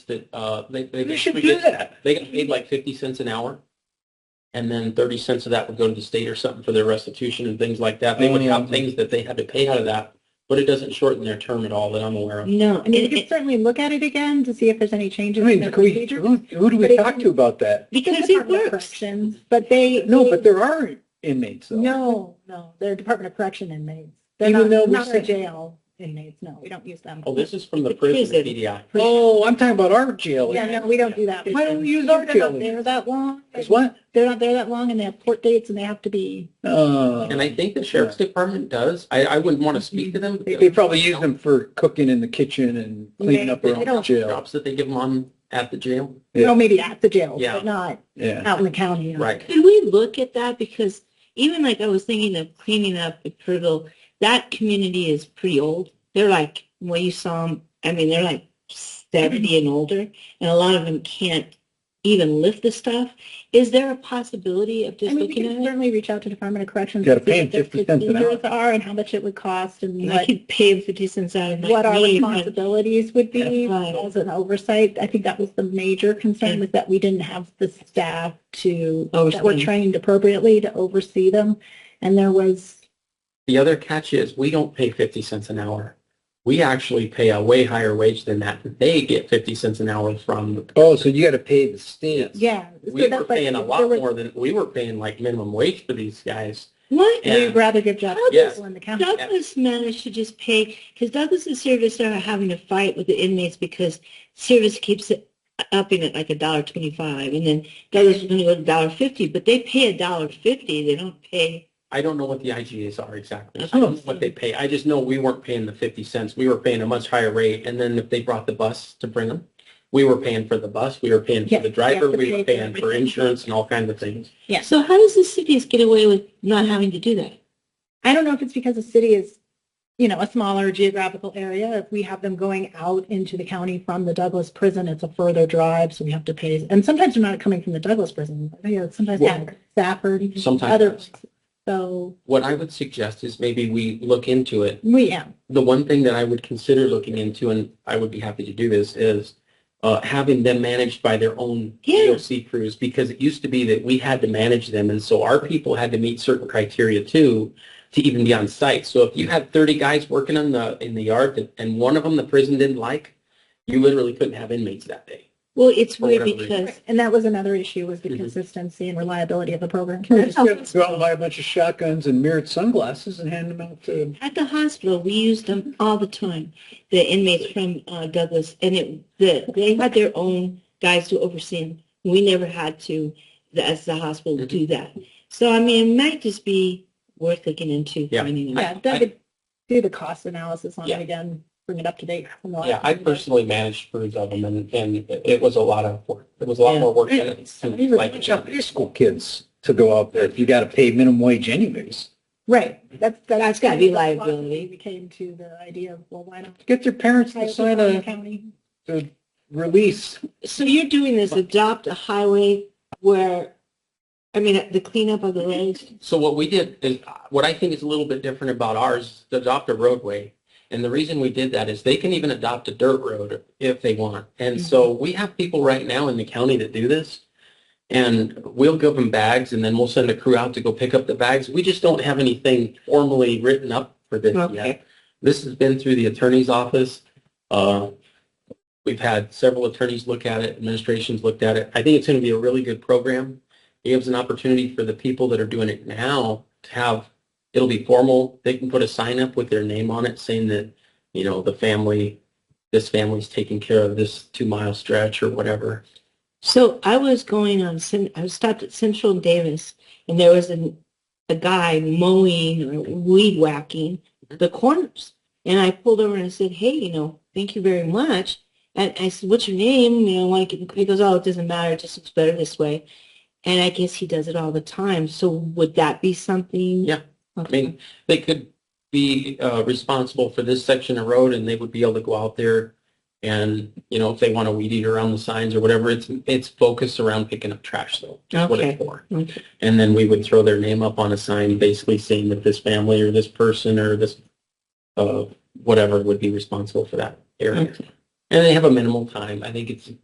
that uh, they they You should they do that. they got paid like fifty cents an hour, and then thirty cents of that would go to the state or something for their restitution and things like that. They would Oh, yeah. have things that they had to pay out of that, but it doesn't shorten their term at all that I'm aware of. No, I mean, It- we can certainly look at it again to see if there's any I changes in mean, the can we, procedure. who, who do But we it- talk to about that? it Because it works. works. But they. No, they- but there are inmates though. No, no, they're Department of Correction inmates. They're Even though not, we not our said- jail inmates, no, we don't use them. Oh, this is from the It prison isn't. PDI. Oh, I'm talking about our jail. Yeah, no, we don't do that. Why don't we use our They're jail? not there that long. Because what? They're not there that long and they have court dates and they have to be, Uh, And I think the sheriff's department does. I, I wouldn't want to speak to them. they probably use them for cooking in the kitchen and cleaning up They- around they the don't- jail. Jobs that they give them on at the jail. Yeah. well, maybe at the jail, Yeah. but not Yeah. out in the county. Right. Could we look at that? Because even like I was thinking of cleaning up at Prittle, that community is pretty old. They're like, when you saw them, I mean, they're like 70 and older, and a lot of them can't even lift the stuff. Is there a possibility of I mean, just we looking can at it? certainly reach out to Department of Corrections. Gotta to see pay 'em what their 50 cents an hour. procedures Are and how much it would cost and And I what, could pay them 50 cents out of my what our name on- responsibilities would be That's right. as an oversight. I think that was the major concern was that we didn't have the staff to, that were Oversee. trained appropriately to oversee them. And there was, The other catch is we don't pay 50 cents an hour. We actually pay a way higher wage than that. They get 50 cents an hour from the Oh, so you got to pay the state. yeah. so we were that's like- paying a lot there were- more than we were paying like minimum wage for these guys. What? Yeah. We'd rather give jobs How to does- people in the county. Douglas managed to just pay, because Douglas and Service are having a fight with the inmates because Service keeps it- upping it like a dollar twenty-five, and then Douglas is gonna go to dollar fifty, but they pay a dollar fifty, they don't pay. I don't know what the IGAs are exactly. I don't know what they pay. I just know we weren't paying the 50 cents. We were paying a much higher rate. And then if they brought the bus to bring them, we were paying for the bus. We were paying for Yeah, the driver. you have to We were pay for paying for everything. insurance and all kinds of things. Yeah. So how does the cities get away with not having to do that? I don't know if it's because the city is, you know, a smaller geographical area. If we have them going out into the county from the Douglas prison, it's a further drive, so we have to pay. And sometimes they're not coming from the Douglas prison. You know, sometimes Well, they're Stafford, sometimes. other. places. So What I would suggest is maybe we look into it we yeah, the one thing that I would consider looking into, and I would be happy to do this, is uh, having them managed by their own Yeah. DOC crews, because it used to be that we had to manage them, and so our people had to meet certain criteria too to even be on site. So if you had 30 guys working in the in the yard, that, and one of them the prison didn't like, you literally couldn't have inmates that day. Well, it's For weird whatever reason. because, and that was another issue was the Mhm. consistency and reliability of the program. Just gotta Go out and buy a bunch of shotguns and mirrored sunglasses and hand them out to. At the hospital, we used them all the time, the inmates from uh, Douglas, and it, the, they had their own guys to oversee them. We never had to, the- as the hospital, do that. So, I mean, it might just be worth looking into Yeah. finding out. Yeah, Doug could do the cost analysis on Yeah. it again, bring it up to date. from the last Yeah, I time. personally managed crews of them, and, and it- it was a lot of work. It was a lot Yeah. more work than it These seemed are like. bunch of high school kids to go out there if you got to pay minimum wage anyways. Right, that's, that's gotta kind be of the liability. philosophy We came to the idea of, well, why not? Get their parents to sign a County. a release. So you're doing this, adopt a highway where, I mean, the cleanup of the Mm-hmm. roads. So what we did is, what I think is a little bit different about ours, is adopt a roadway. And the reason we did that is they can even adopt a dirt road if they want. And so we have people right now in the county that do this. And we'll give them bags and then we'll send a crew out to go pick up the bags. We just don't have anything formally written up for this yet. Okay. This has been through the attorney's office. Uh, We've had several attorneys look at it, administrations looked at it. I think it's going to be a really good program. It gives an opportunity for the people that are doing it now to have, it'll be formal. They can put a sign up with their name on it saying that, you know, the family, this family's taking care of this two mile stretch or whatever. So I was going on, Cen- I was stopped at Central and Davis, and there was an, a guy mowing or weed whacking the Mm-hmm. corners. And I pulled over and I said, hey, you know, thank you very much. And I said, what's your name? You know, like, and he goes, oh, it doesn't matter. It just looks better this way. And I guess he does it all the time. So would that be something? Yeah. I Okay. mean, they could be uh, responsible for this section of road and they would be able to go out there and, you know, if they want to weed eat around the signs or whatever, it's, it's focused around picking up trash though. That's what it's for. Okay. And then we would throw their name up on a sign basically saying that this family or this person or this, uh, whatever would be responsible for that area. Okay. And they have a minimal time. I think it's